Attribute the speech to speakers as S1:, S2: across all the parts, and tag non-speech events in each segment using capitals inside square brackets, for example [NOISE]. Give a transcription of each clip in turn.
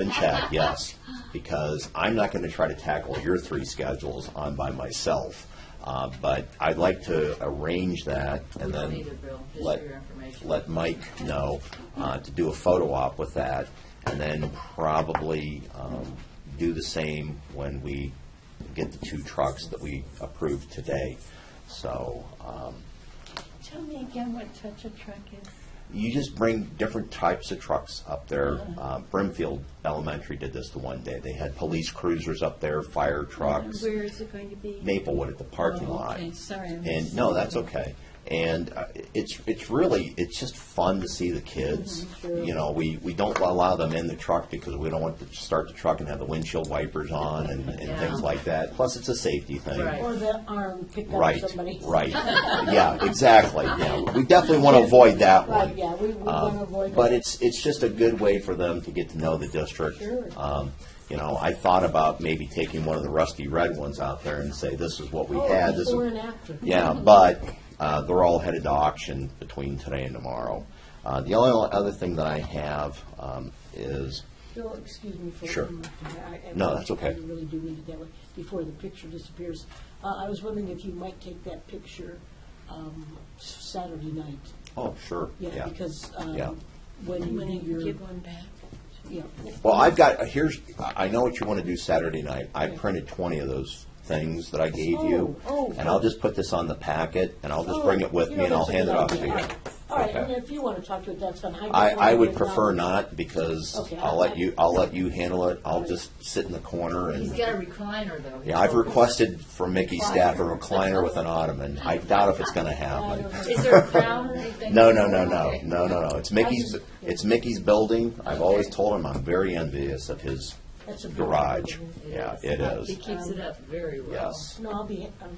S1: Then Chad, yes, because I'm not going to try to tackle your three schedules on by myself. Uh, But I'd like to arrange that and
S2: don't
S1: then.
S2: need it, Bill, just
S1: let-
S2: for your information.
S1: Let Mike know uh, to do a photo op with that and then probably um, do the same when we get the two trucks that we approved today. So um,
S3: Tell me again what touch a truck is.
S1: you just bring different types of trucks up there. Uh, Brimfield Elementary did this the one day. They had police cruisers up there, fire trucks,
S3: Where is it going to be?
S1: Maplewood at the parking
S3: Oh,
S1: lot.
S3: okay. Sorry, I
S1: And,
S3: missed
S1: no, that's okay. And uh, it's, it's really, it's just fun to see the kids.
S3: Mm-hmm,
S1: You know, we, we don't allow them in the truck because we don't want to start the truck and have the windshield wipers on and, and things
S2: Yeah.
S1: like that. Plus, it's a safety thing.
S2: Right.
S4: Or the arm pick up
S1: Right,
S4: somebody. [LAUGHS]
S1: right. Yeah, exactly, yeah. We definitely want to avoid that one. Um,
S4: Right, yeah, we, we want to avoid.
S1: But
S4: that.
S1: it's, it's just a good way for them to get to know the district.
S4: Sure.
S1: Um, You know, I thought about maybe taking one of the rusty red ones out there and say, this is what we
S4: Oh,
S1: had. this is-
S4: before and after.
S1: Yeah, but uh, they're all headed to auction between today and tomorrow. Uh, The only other thing that I have um, is,
S4: Bill, excuse me for.
S1: Sure.
S4: interrupting. I- I-
S1: No, that's okay.
S4: I really do need it that way, before the picture disappears. Uh, I was wondering if you might take that picture, um, s- Saturday night.
S1: oh, sure,
S4: Yeah,
S1: yeah.
S4: because,
S1: Yeah.
S4: um, when you
S3: When
S4: do
S3: you
S4: your,
S3: give one back.
S4: yeah,
S1: Well, I've got, uh, here's, I I know what you want to do Saturday night. I
S4: Yeah.
S1: printed twenty of those things that I gave you.
S4: Oh, oh.
S1: And I'll just put this on the packet, and I'll just
S4: Oh,
S1: bring it with me,
S4: you know,
S1: and I'll
S4: that's a
S1: hand it
S4: good
S1: off to
S4: idea.
S1: you.
S4: All right,
S1: Okay.
S4: and if you want to talk to it, that's fine. just
S1: I, I
S4: wanted
S1: would
S4: to acknowledge-
S1: prefer not, because
S4: Okay,
S1: I'll let you, I'll let you handle it, I'll just sit in the corner
S2: He's
S1: and,
S2: got a recliner, though.
S1: yeah, I've requested from Mickey's staff a recliner with an ottoman, I doubt if it's gonna happen.
S2: Is there a crown or anything?
S1: No, no, no, no,
S2: Okay.
S1: no, no, no, it's Mickey's,
S4: just-
S1: it's Mickey's building, I've always told him I'm very envious of his
S4: That's a big
S1: garage,
S4: problem.
S1: yeah, it
S2: He
S1: is,
S2: keeps it up very well.
S1: yes.
S4: No, I'll be, um,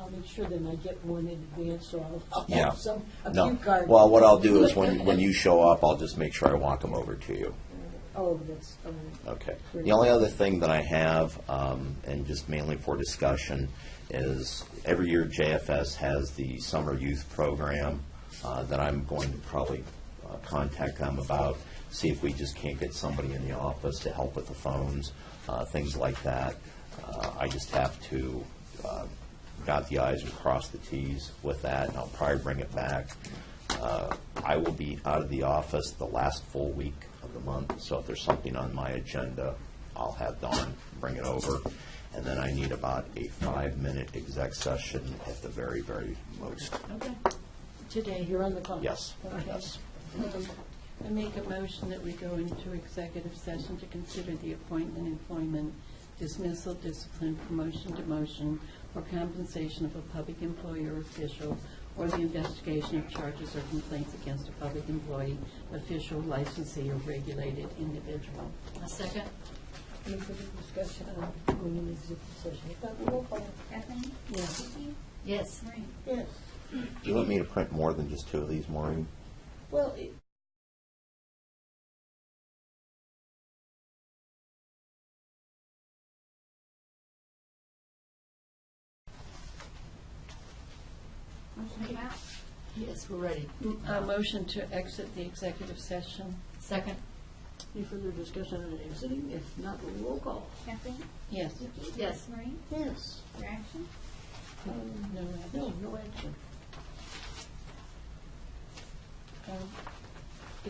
S4: I'll make sure then I get one in advance, so I'll- I'll
S1: Yeah.
S4: have some, a
S1: No.
S4: few cards.
S1: Well, what I'll do is when, when you show up, I'll just make sure I walk them over to you.
S4: [LAUGHS] Oh, that's, um,
S1: Okay. The
S4: Great.
S1: only other thing that I have, um, and just mainly for discussion, is every year JFS has the summer youth program uh, that I'm going to probably uh, contact them about, see if we just can't get somebody in the office to help with the phones, uh, things like that. Uh, I just have to uh, dot the i's and cross the t's with that, and I'll probably bring it back. Uh, I will be out of the office the last full week of the month, so if there's something on my agenda, I'll have Dawn bring it over. And then I need about a five-minute exec session at the very, very most.
S3: Today,
S4: you're on the clock.
S1: Yes,
S4: Okay.
S1: yes.
S3: I make a motion that we go into executive session to consider the appointment, employment, dismissal, discipline, promotion, demotion, or compensation of a public employee or official, or the investigation of charges or complaints against a public employee, official, licensee, or regulated individual.
S2: A second?
S4: Any further discussion um, on going into executive session? If not, roll call.
S5: Kathleen?
S4: Yes.
S5: Vicki?
S2: Yes.
S5: Maureen?
S4: Yes.
S1: Do you want me to print more than just two of these, Maureen?
S4: Well, it-
S5: Motion to come out?
S2: Yes, we're ready.
S3: A motion to exit the executive session.
S2: Second?
S4: any further discussion on exiting? If not, roll call.
S5: Kathleen?
S3: Yes.
S5: Vicki?
S2: Yes.
S5: Maureen?
S4: Yes.
S5: Your action?
S3: Um, No, action.
S4: No, no action.
S3: Um,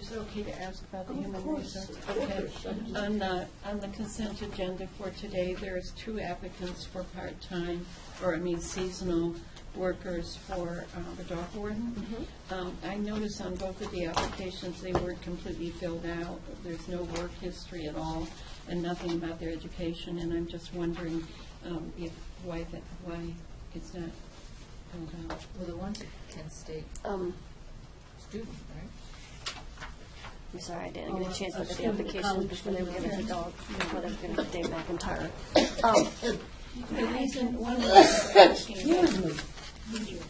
S3: Is it okay to ask about the
S4: Of
S3: human
S4: course,
S3: resources?
S4: of course.
S3: Okay. On the, on the consent agenda for today, there is two applicants for part-time, or I mean seasonal workers for uh, the dog warden.
S4: Mm-hmm.
S3: Um, I noticed on both of the applications, they weren't completely filled out. There's no work history at all, and nothing about their education, and I'm just wondering um, if, why that, why it's not filled out.
S2: Well, the one's a Kent State
S6: Um,
S2: student, right?
S6: I'm sorry, I didn't get a chance to look at the
S4: Student,
S6: applications
S4: college
S6: before they were gonna
S4: student.
S6: take all, before they were gonna get Dave McIntyre. Um,
S3: The reason, one of [COUGHS] the reasons I'm asking about
S4: Excuse me.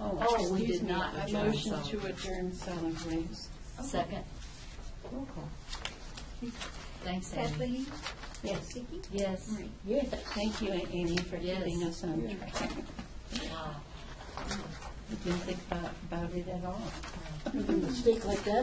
S3: Oh,
S2: we
S3: excuse
S2: did
S3: me,
S2: not
S3: a
S2: adjourn
S3: motion
S2: solid
S3: to
S2: waste.
S3: adjourn solid waste.
S2: Second?
S4: Roll call.
S2: Thanks, Amy.
S5: Kathleen?
S3: Yes.
S5: Vicki?
S2: Yes.
S5: Maureen?
S4: Yes.
S3: Thank you, Amy, for
S2: Yes.
S3: keeping us on track.
S2: Wow.
S3: I didn't think about, about it at all.
S4: A mistake like that